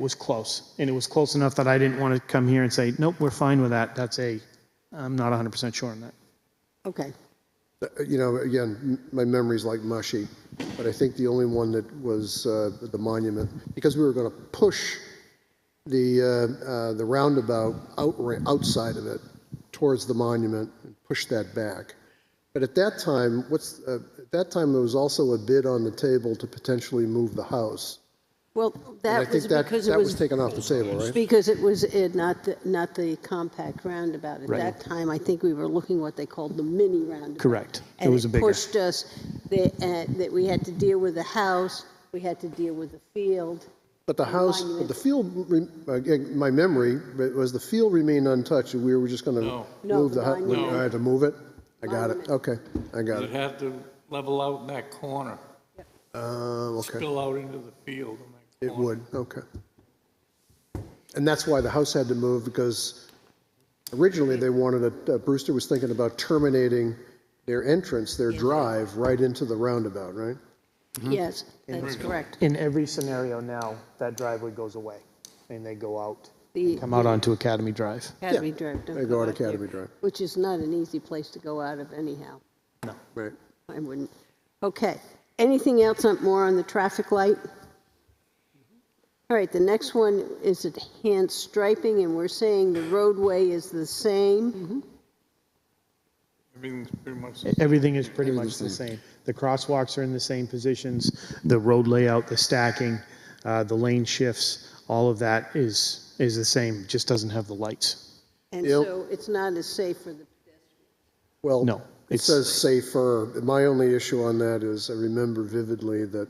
was close. And it was close enough that I didn't want to come here and say, nope, we're fine with that. That's a, I'm not 100% sure on that. Okay. Uh, You know, again, m- my memory's like mushy, but I think the only one that was uh, the monument, because we were going to push the, uh, uh, the roundabout out, outside of it towards the monument and push that back. But at that time, what's, uh, at that time, there was also a bid on the table to potentially move the house. Well, And I that was think that, because it that was was, taken off the table, right? because it was in- not, the- not the compact roundabout. At that time, I think we were looking what they called the mini roundabout. Correct. It And was a bigger. pushed us, that, uh, that we had to deal with the house, we had to deal with the field. But the house, but the field, re- again, my memory but was the field remained untouched, and we were just going to No, move the, the hu- we- monument. I had to move it? I got Monument. it, okay, I got You'd it. have to level out in that corner, Um, okay, spill out into the field. in that it would, okay. And that's why the house had to move, because originally they wanted, to- uh, Brewster was thinking about terminating their entrance, their drive, right into the roundabout, right? Mm-hmm. Yes, that's correct. In every scenario now, that driveway goes away and they go out, The come out onto Academy Drive. Academy Drive. don't They go out there, Academy Drive. Which is not an easy place to go out of anyhow. Right. I wouldn't. Okay. Anything else on, more on the traffic light? All right, the next one is enhanced striping, and we're saying the roadway is the Mm-hmm. same. Everything's pretty much, Everything is pretty much the same. The crosswalks are in the same positions, the road layout, the stacking, uh, the lane shifts, all of that is, is the same, just doesn't have the lights. And Yep. so it's not as safe for the, Well, No, it it's- says safer. My only issue on that is I remember vividly that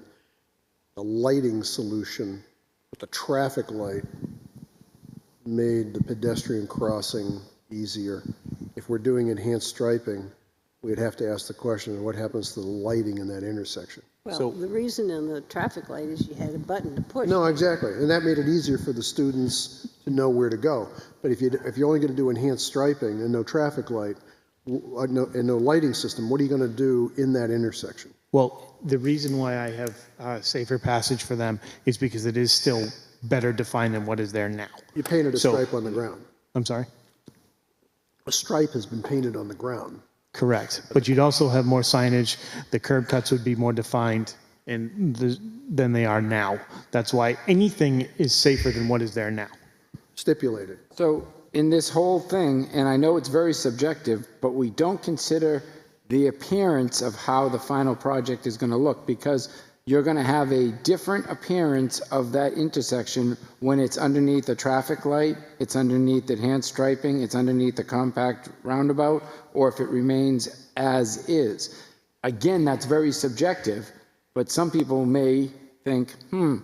the lighting solution with the traffic light made the pedestrian crossing easier. If we're doing enhanced striping, we'd have to ask the question, what happens to the lighting in that intersection? well, So- the reason on the traffic light is you had a button to push. No, exactly. And that made it easier for the students to know where to go. But if you, if you're only going to do enhanced striping and no traffic light, w- uh, no- and no lighting system, what are you going to do in that intersection? Well, the reason why I have uh, safer passage for them is because it is still better defined than what is there now. You painted a So- stripe on the ground. I'm sorry? A stripe has been painted on the ground. Correct. But you'd also have more signage, the curb cuts would be more defined and the, than they are now. That's why anything is safer than what is there now. Stipulated. So in this whole thing, and I know it's very subjective, but we don't consider the appearance of how the final project is going to look because you're going to have a different appearance of that intersection when it's underneath a traffic light, it's underneath enhanced striping, it's underneath the compact roundabout, or if it remains as is. Again, that's very subjective, but some people may think, hmm,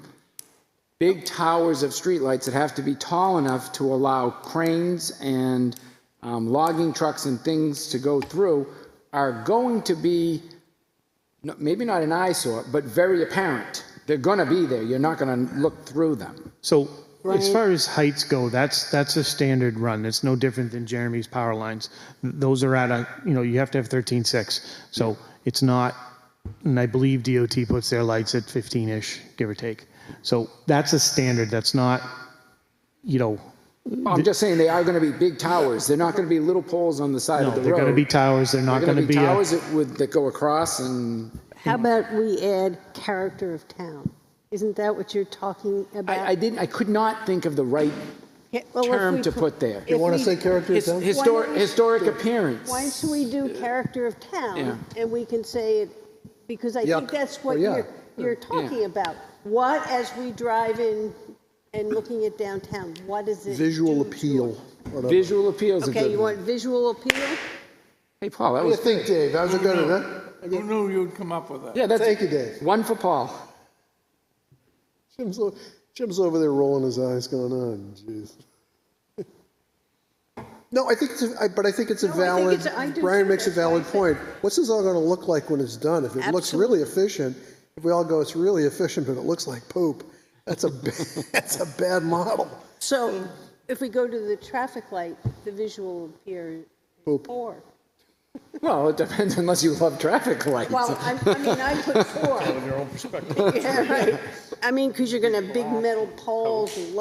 big towers of streetlights that have to be tall enough to allow cranes and um, logging trucks and things to go through are going to be no- maybe not an eyesore, but very apparent. They're going to be there. You're not going to look through them. So as far as heights go, that's, that's a standard run. It's no different than Jeremy's power lines. Th- Those are at a, you know, you have to have 13.6. So it's not, and I believe DOT puts their lights at 15-ish, give or take. So that's a standard. That's not, you know, I'm just saying they are going to be big towers. They're not going to be little poles on the side no, of the they're road. going to be towers. They're They're not gonna uh, going to be. a- towers that, would, that go across and How about we add character of town? Isn't that what you're talking about? I, I didn't I could not think of the right Yeah, well, if term we to put- put there. if wanna we- character His, town? historic we- historic appearance. Why don't we do character of town, Yeah. and we can say it, because I think Yuck. that's what Well, yeah. you're, you're talking about. What, as we drive in and looking at downtown, what does it? Visual do to appeal. us? What do Visual appeals. a Okay, good you one. want visual appeal? Hey Paul, that you was think, Dave? How's it going, huh? who knew you'd come up with that? yeah. That's Thank you, Dave. One for Paul. Jim's, o- Jim's over there rolling his eyes going, on. jeez. No, I think it's, a- I- but I think it's a No, I think valid, it's a- I do Brian too. makes a That's why I valid said- point. What's this all gonna look like when it's done? If it looks really efficient, if we all go, it's really efficient, but it looks like poop, that's a, ba- that's a bad model. So if we go to the traffic light, the visual appear Poop. four. Well, it depends unless you love traffic lights. Well, I, I mean, I put four. Your own perspective. Yeah, right. I mean, because you're going to have big metal poles and